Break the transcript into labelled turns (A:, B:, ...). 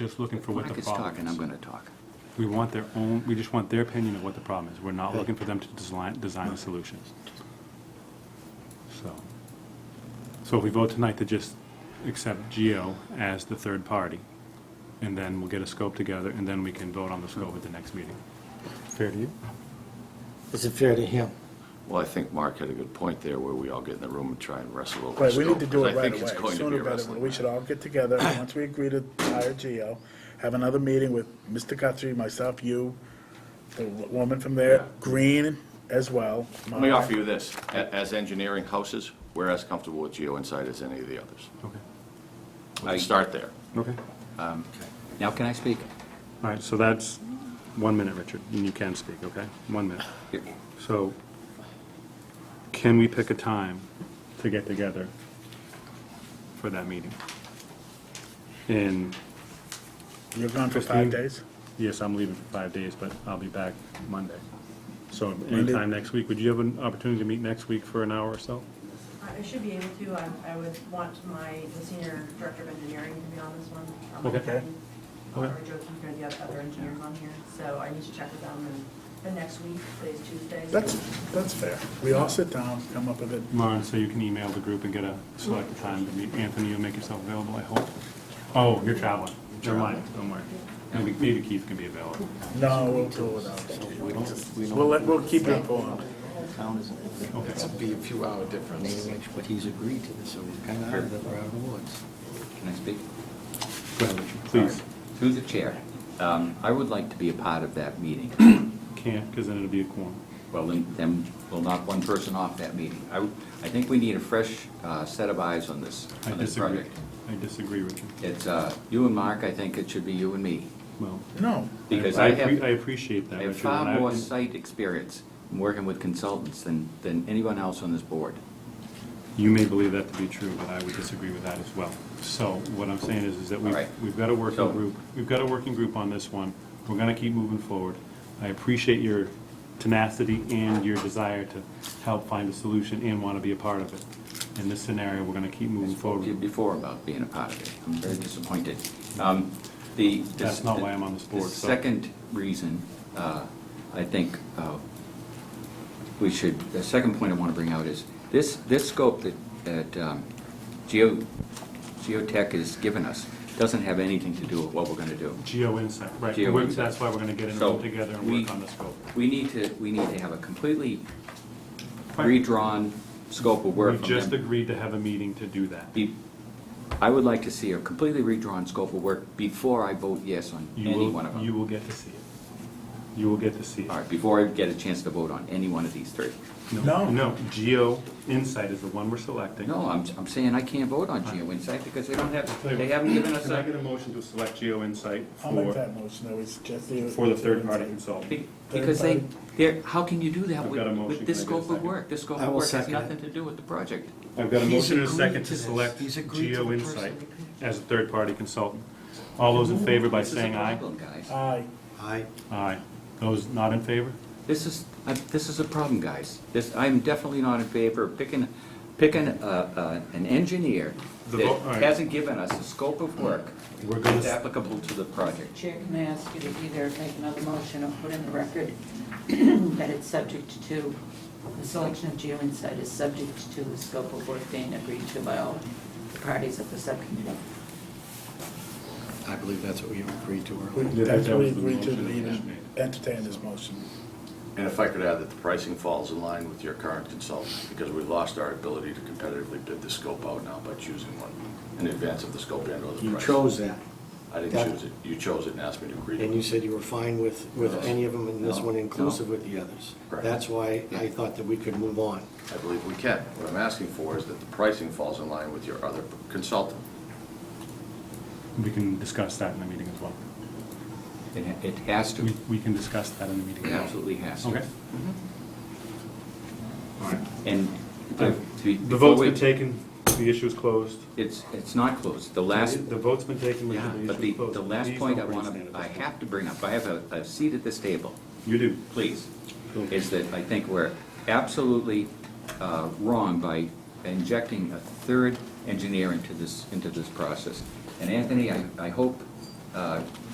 A: Just looking for what the
B: Mike is talking,
A: problem
B: I'm
A: is.
B: going to talk.
A: We want their own, we just want their opinion of what the problem is. We're not looking for them to design, design a solution. So, so if we vote tonight to just accept Geo as the third party, and then we'll get a scope together, and then we can vote on the scope at the next meeting.
C: Fair to you? Is it fair to him?
D: Well, I think Mark had a good point there, where we all get in the room and try and wrestle over.
E: Right, we need to
D: scope,
E: do
D: 'cause
E: it
D: I
E: right
D: think it's
E: away,
D: going to be
E: sooner
D: a
E: better.
D: wrestling
E: We should all get together, and once we agree to hire Geo, have another meeting with Mr. Guthrie, myself, you, the woman from there, Green as well.
D: Let me offer you this, A- as engineering houses, we're as comfortable with GeoInsight as any of the others.
A: Okay.
D: We can start there.
A: Okay.
B: Now can I speak?
A: All right, so that's one minute, Richard, and you can speak, okay? One minute. So can we pick a time to get together for that meeting? And,
E: You're gone for
A: Christine?
E: five days?
A: yes, I'm leaving for five days, but I'll be back Monday. So
E: Monday?
A: anytime next week, would you have an opportunity to meet next week for an hour or so?
F: I I should be able to, I, I would want my, the senior director of engineering to be on this one. um,
A: Okay.
F: Kevin, Or
A: Okay.
F: Joe Keefe, or the other- other engineers on here, so I need to check with them and the next week, today's Tuesday. so-
E: That's, that's fair. We all sit down, come up with it.
A: Lauren, so you can email the group and get a select a time to meet. Anthony, you'll make yourself available, I hope. Oh, you're traveling. Never mind, don't worry. Maybe maybe Keith can be available.
E: No, we'll do it without. We'll, let- we'll keep you informed.
A: Okay.
C: Be a few hour difference.
B: But he's agreed to this, so we're kind of out of the, we're out of the woods. Can I speak?
A: Go ahead, Richard, please.
B: Through the chair, um, I would like to be a part of that meeting.
A: Can't, because then it'll be a quorum.
B: Well, then, then we'll knock one person off that meeting. I, would- I think we need a fresh uh, set of eyes on this,
A: I
B: on this
A: disagree.
B: project.
A: I disagree, Richard.
B: It's uh, you and Mark, I think it should be you and me.
A: Well,
E: No,
B: Because
A: I
B: I
A: appre-
B: have-
A: I appreciate that,
B: I have
A: Richard. and
B: far
A: I-
B: more site experience in working with consultants than, than anyone else on this board.
A: You may believe that to be true, but I would disagree with that as well. So what I'm saying is, is that we've,
B: All right.
A: we've got a working
B: So-
A: group, we've got a working group on this one. We're gonna keep moving forward. I appreciate your tenacity and your desire to help find a solution and want to be a part of it. In this scenario, we're gonna keep moving
B: Told you
A: forward.
B: before about being a part of it. I'm very disappointed. Um, The. the-
A: That's not why I'm on this board,
B: The
A: so-
B: second reason, uh, I think, uh, we should, the second point I want to bring out is, this, this scope that, that um, Geo, Geotech has given us doesn't have anything to do with what we're going to do.
A: Geo insight, right.
B: Geo
A: We're-
B: Insight.
A: That's why we're gonna get in a
B: So
A: room together and
B: we-
A: work on this scope.
B: We need to, we need to have a completely
A: Fine.
B: redrawn scope of work
A: We
B: from them.
A: just agreed to have a meeting to do that.
B: be, I would like to see a completely redrawn scope of work before I vote yes on
A: You
B: any
A: will-
B: one of
A: You
B: them.
A: will get to see it. You will get to see it.
B: All right, before I get a chance to vote on any one of these three.
E: No.
A: No, Geo Insight is the one we're selecting.
B: No, I'm, I'm saying I can't vote on Geo Insight because they don't
A: Tell you
B: have,
A: what,
B: they haven't given us
A: Can I get
B: a.
A: a motion to select Geo Insight
E: I'll make
A: for,
E: that motion, that was just the.
A: for the third-party consultant?
B: be- Because they, they're, how can you do that
A: I've
B: with,
A: got a motion.
B: with this
A: Can I get a
B: scope of
A: second?
B: work? This scope
C: I
B: of
C: will
B: work has
C: second it.
B: nothing to do with the project.
A: I've got a
C: He's
A: motion and a
C: agreed
A: second
C: to
A: to
C: this.
A: select
C: He's agreed to
A: Geo
C: the
A: Insight
C: person.
A: as a third-party consultant. All those in favor by
B: This is a
A: saying aye?
B: problem, Guys,
E: Aye.
C: Aye.
A: Aye. Those not in favor?
B: this is, I- this is a problem, guys. This, I'm definitely not in favor of picking, picking, uh, uh, an engineer
A: The
B: that
A: vo- all right.
B: hasn't given us a scope of work
A: We're
B: It's
A: gonna,
B: applicable to the project.
G: Chair, can I ask you to either make another motion or put in the record that it's subject to, the selection of GeoInsight is subject to the scope of work being agreed to by all parties of the subcommittee?
C: I believe that's what we agreed to
E: We-
C: earlier.
A: Yeah, that-
E: That's
A: that
E: what we
A: was the
E: agreed to,
A: motion that
E: we
A: was
E: didn't entertain this motion.
D: And if I could add that the pricing falls in line with your current consultant, because we lost our ability to competitively bid the scope out now by choosing one in advance of the scope and or the
C: You
D: price.
C: chose that,
D: I
C: that-
D: didn't choose it. You chose it and asked me to agree to it.
C: and you said you were fine with, with any of them, and this
B: No,
C: one
B: no.
C: inclusive with the others.
D: Correct.
C: That's why I thought that we could move on.
D: I believe we can. What I'm asking for is that the pricing falls in line with your other consultant.
A: we can discuss that in the meeting as well.
B: It, ha- it has to,
A: We,
B: it
A: we can discuss that in the meeting. as well.
B: absolutely has to.
A: Okay.
B: And the.
A: The vote's been taken, the issue's closed.
B: It's, it's not closed. The last,
A: The vote's been taken, Richard,
B: yeah,
A: the
B: but the,
A: issue's closed.
B: the last
A: Please
B: point I
A: don't raise
B: want
A: your
B: to, I
A: hand.
B: have to bring up, I have a, a seat at this table,
A: You do.
B: please,
A: Cool.
B: is that I think we're absolutely uh, wrong by injecting a third engineer into this, into this process. And Anthony, I, I hope uh,